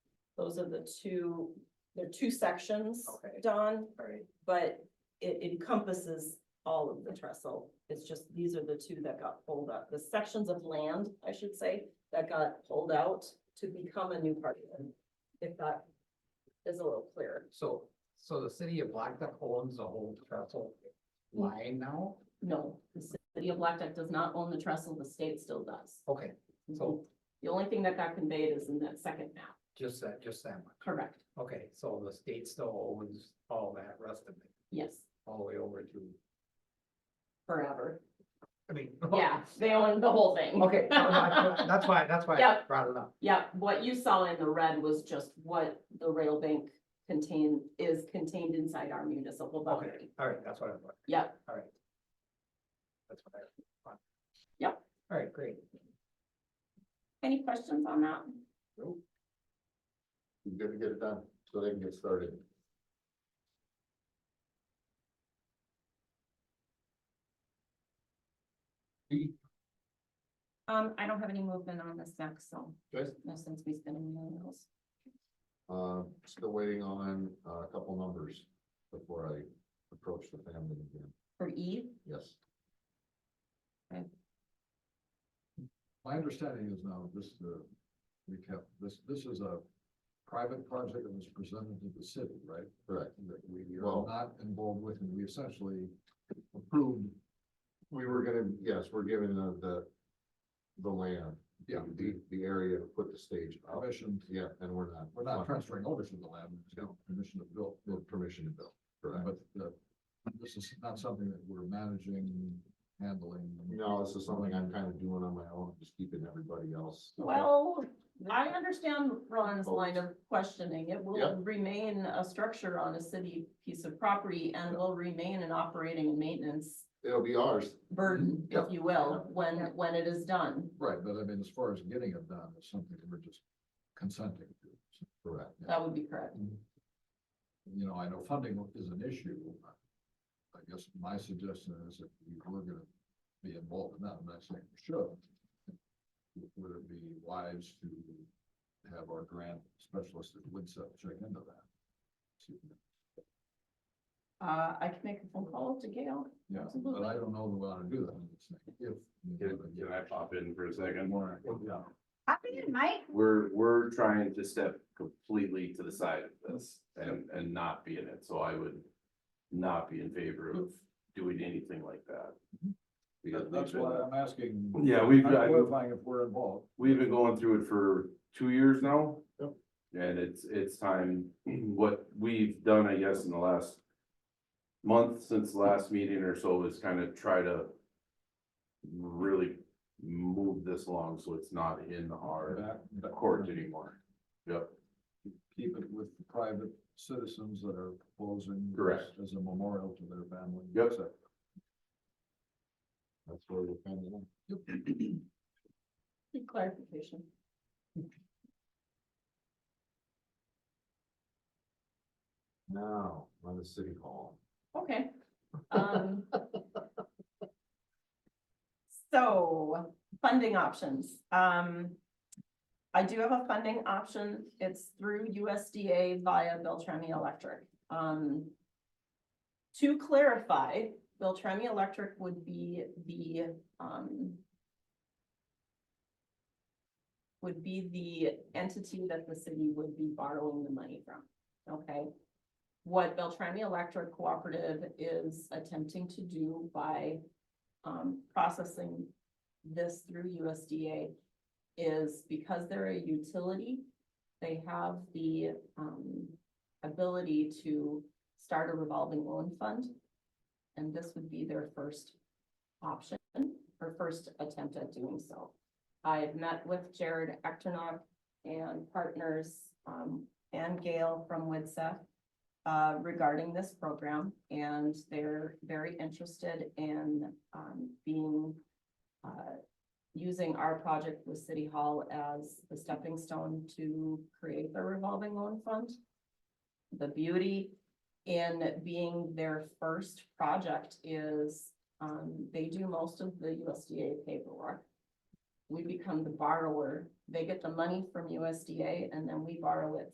Those are the two, there are two sections, Okay. Don, Alright, but it encompasses all of the trestle. It's just, these are the two that got pulled up, the sections of land, I should say, that got pulled out to become a new park. If that is a little clearer. so, so the city of Black Duck owns the whole trestle Mm. line now? No, the city of Black Duck does not own the trestle, the state still does. Okay, so The only thing that got conveyed is in that second map, just that, just that much. correct, Okay, so the state still owns all that rest of it, yes, all the way over to, forever, I mean. yeah, they own the whole thing. Okay, that's why, that's why I Yep. brought it up. Yeah, what you saw in the red was just what the rail bank contain, is contained inside our municipal Okay, boundary. all right, that's what I thought. Yep. All right. That's what I. thought. Yep. All right, great. Any questions on that? You gotta get it done, so they can get started. Um, I don't have any movement on this next, so, Good. no sense me spending millions. Uh, still waiting on uh, a couple numbers before I approach the family again, For E, yes. My understanding is now, just to recap, this, this is a private project that was presented to the city, right? Correct. That we are not involved with, and we essentially approved. We were gonna, yes, we're giving the, the, the land. Yeah. The, the area to put the stage up. Permission. Yeah, and we're not. We're not transferring ownership of the land, we permission to build. Permission to build. Correct. But, uh, this is not something that we're managing, handling. No, this is something I'm kind of doing on my own, just keeping everybody else. Well, I understand Ron's line of questioning. It Yeah. will remain a structure on a city piece of property and will remain an operating and maintenance It'll be ours. burden, Yeah. if you will, when, when it is done. Right, but I mean, as far as getting it done, it's something we're just consenting to. Correct. That would be correct. You know, I know funding is an issue. I guess my suggestion is if we were gonna be involved in that, I'm not saying we should. Would it be wise to have our grant specialist at Woodset check into that? See, Uh, I can make a phone call to Gail. Yeah, but Absolutely. I don't know the way to do that. It's like, If. Can, can I pop in for a second? Yeah. We're, we're trying to step completely to the side of this and, and not be in it, so I would not be in favor of doing anything like that. Because Mm-hmm. That- That's we've been- why I'm asking. Yeah, we've- I'm Clarifying if we're involved. We've been going through it for two years now. Yep. And it's, it's time, what we've done, I guess, in the last month since the last meeting or so is kind of try to really move this along so it's not in our Back- back- court anymore. Yep. Keep it with the private citizens that are proposing. Correct. As a memorial to their family. Yep. That's where we're coming Good Clarification. Now, on the city hall. Okay. Um, So, funding options. Um, I do have a funding option. It's through USDA via Beltrami Electric. Um, to clarify, Beltrami Electric would be the, um, would be the entity that the city would be borrowing the money from, okay? what Beltrami Electric Cooperative is attempting to do by um, processing this through USDA is because they're a utility, they have the um, ability to start a revolving loan fund. And this would be their first option or first attempt at doing so. I have met with Jared Ectornock and partners um, and Gail from WITSEF uh, regarding this program, and they're very interested in, um, being, uh, using our project with City Hall as the stepping stone to create the revolving loan fund. The beauty in being their first project is, um, they do most of the USDA paperwork. We become the borrower, they get the money from USDA, and then we borrow it